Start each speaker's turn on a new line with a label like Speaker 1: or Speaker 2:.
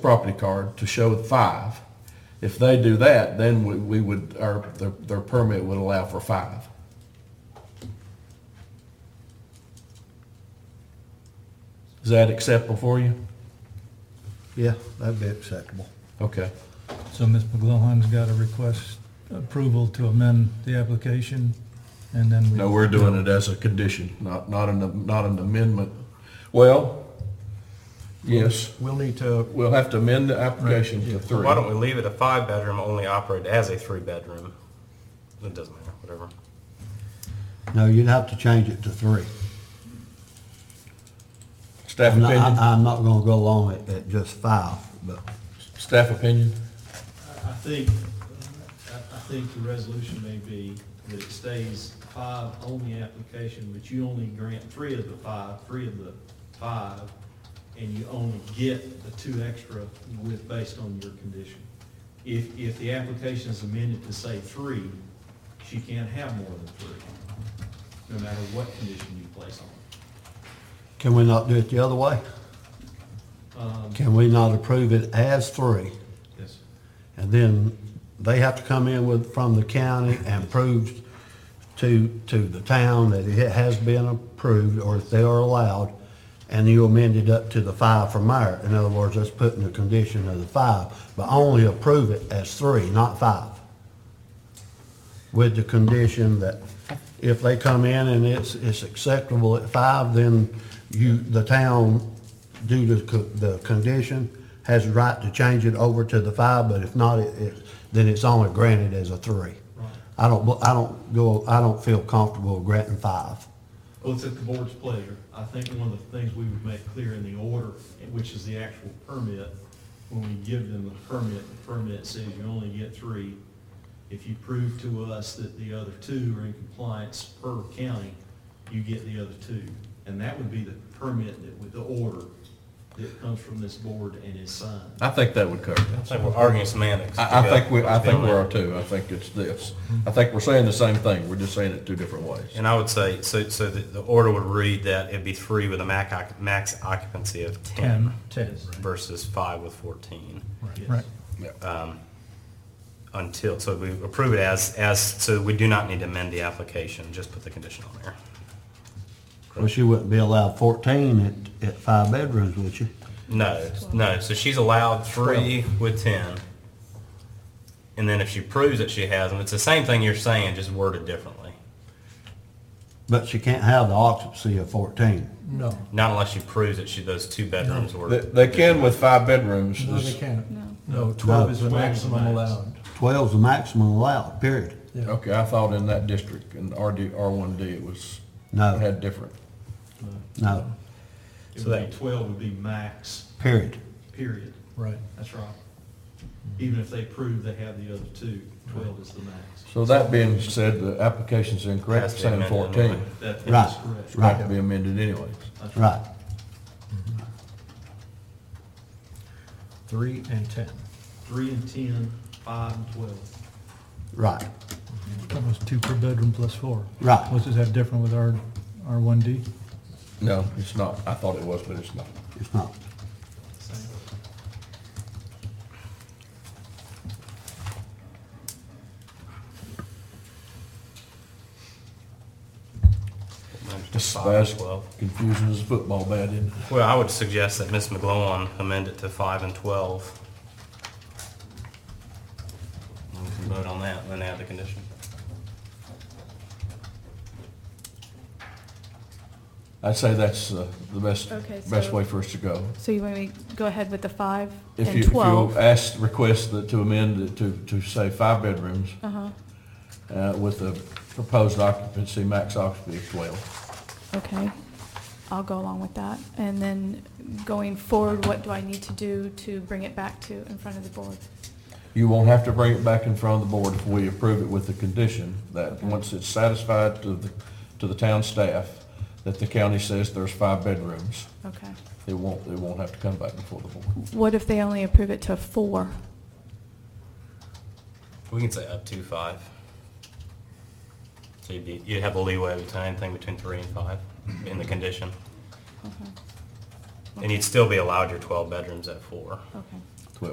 Speaker 1: property card to show five. If they do that, then we, we would, our, their, their permit would allow for five. Is that acceptable for you?
Speaker 2: Yeah, that'd be acceptable.
Speaker 1: Okay.
Speaker 3: So Ms. McGlohan's got a request approval to amend the application, and then we...
Speaker 1: No, we're doing it as a condition, not, not an, not an amendment. Well, yes,
Speaker 4: We'll need to,
Speaker 1: we'll have to amend the application to three.
Speaker 4: why don't we leave it a five-bedroom, only operate as a three-bedroom? It doesn't matter, whatever.
Speaker 2: No, you'd have to change it to three.
Speaker 1: Staff
Speaker 2: I'm not,
Speaker 1: opinion?
Speaker 2: I- I'm not gonna go along at, at just five, but
Speaker 1: Staff opinion?
Speaker 5: I I think, I I think the resolution may be that it stays five on the application, but you only grant three of the five, three of the five, and you only get the two extra with, based on your condition. If, if the application is amended to say three, she can't have more than three, no matter what condition you place on it.
Speaker 2: can we not do it the other way?
Speaker 5: Um,
Speaker 2: Can we not approve it as three?
Speaker 5: Yes.
Speaker 2: And then they have to come in with, from the county and prove to, to the town that it has been approved or if they are allowed. And you amend it up to the five from there. In other words, let's put in the condition of the five, but only approve it as three, not five. With the condition that if they come in and it's, it's acceptable at five, then you, the town, due to co- the condition, has the right to change it over to the five, but if not, it, it, then it's only granted as a three. I don't, bel- I don't go, I don't feel comfortable granting five.
Speaker 5: Well, Oh, it's at the board's pleasure. I think one of the things we would make clear in the order, which is the actual permit, when we give them the permit, the permit says you only get three. If you prove to us that the other two are in compliance per county, you get the other two. And that would be the permit that, with the order that comes from this board and is signed.
Speaker 1: I think that would cover it.
Speaker 4: It's like we're arguing semantics.
Speaker 1: I, I think we, I think we are too. I think it's this. I think we're saying the same thing. We're just saying it two different ways.
Speaker 4: And I would say, so, so the, the order would read that it'd be three with a max, occ- max occupancy of
Speaker 3: 10,
Speaker 4: ten
Speaker 3: 10,
Speaker 4: versus five with fourteen.
Speaker 3: right,
Speaker 5: Yes.
Speaker 3: right.
Speaker 4: uh, Until, so we approve it as, as, so we do not need to amend the application, just put the condition on there.
Speaker 2: Well, she wouldn't be allowed fourteen at, at five bedrooms, would she?
Speaker 4: No, no, so she's allowed three with ten. And then if she proves that she has them, it's the same thing you're saying, just worded differently.
Speaker 2: But she can't have the occupancy of fourteen.
Speaker 3: No,
Speaker 4: Not unless she proves that she, those two bedrooms were.
Speaker 1: They, they can with five bedrooms.
Speaker 3: no, they
Speaker 1: It's-
Speaker 3: can't.
Speaker 6: No.
Speaker 3: No, 12
Speaker 2: No.
Speaker 3: is the maximum allowed.
Speaker 2: Twelve's the maximum allowed, period.
Speaker 3: Yeah.
Speaker 1: Okay, I thought in that district, in RD, R1D, it was,
Speaker 2: No.
Speaker 1: it had different.
Speaker 2: No,
Speaker 5: It
Speaker 4: So
Speaker 5: would
Speaker 4: that-
Speaker 5: be twelve would be max,
Speaker 2: period.
Speaker 5: period.
Speaker 3: Right.
Speaker 5: That's right. Even if they prove they have the other two, twelve is the max.
Speaker 1: So that being said, the application's incorrect,
Speaker 4: Has to be
Speaker 1: saying
Speaker 4: amended
Speaker 1: 14.
Speaker 4: anyway.
Speaker 5: That
Speaker 2: Right.
Speaker 5: is correct.
Speaker 1: It's got to be amended anyways.
Speaker 5: That's
Speaker 2: Right.
Speaker 3: 3 and 10,
Speaker 5: Three and ten, five and twelve.
Speaker 2: Right.
Speaker 3: that was two per bedroom plus four.
Speaker 2: Right.
Speaker 3: Was that different with our, our 1D?
Speaker 1: No, it's not. I thought it was, but it's not.
Speaker 2: It's not.
Speaker 5: Same.
Speaker 1: Just
Speaker 4: Five
Speaker 1: as
Speaker 4: and twelve.
Speaker 1: confusing as a football bat, isn't it?
Speaker 4: Well, I would suggest that Ms. McGlowan amend it to five and twelve. And We can vote on that and then add the condition.
Speaker 1: I'd say that's uh, the best,
Speaker 6: Okay, so-
Speaker 1: best way for us to go.
Speaker 6: So you want me to go ahead with the five
Speaker 1: If
Speaker 6: and
Speaker 1: you, if you
Speaker 6: 12?
Speaker 1: ask, request that to amend it to, to say five bedrooms
Speaker 6: Uh-huh,
Speaker 1: uh, with a proposed occupancy, max occupancy of 12.
Speaker 6: okay. I'll go along with that. And then going forward, what do I need to do to bring it back to in front of the board?
Speaker 1: You won't have to bring it back in front of the board if we approve it with the condition that once it's satisfied to the, to the town staff that the county says there's five bedrooms,
Speaker 6: Okay.
Speaker 1: it won't, it won't have to come back before the board.
Speaker 6: What if they only approve it to four?
Speaker 4: We can say up to five. So you'd be, you'd have a leeway between anything between three and five in the condition.
Speaker 6: Okay.
Speaker 4: And you'd still be allowed your twelve bedrooms at four.
Speaker 6: Okay.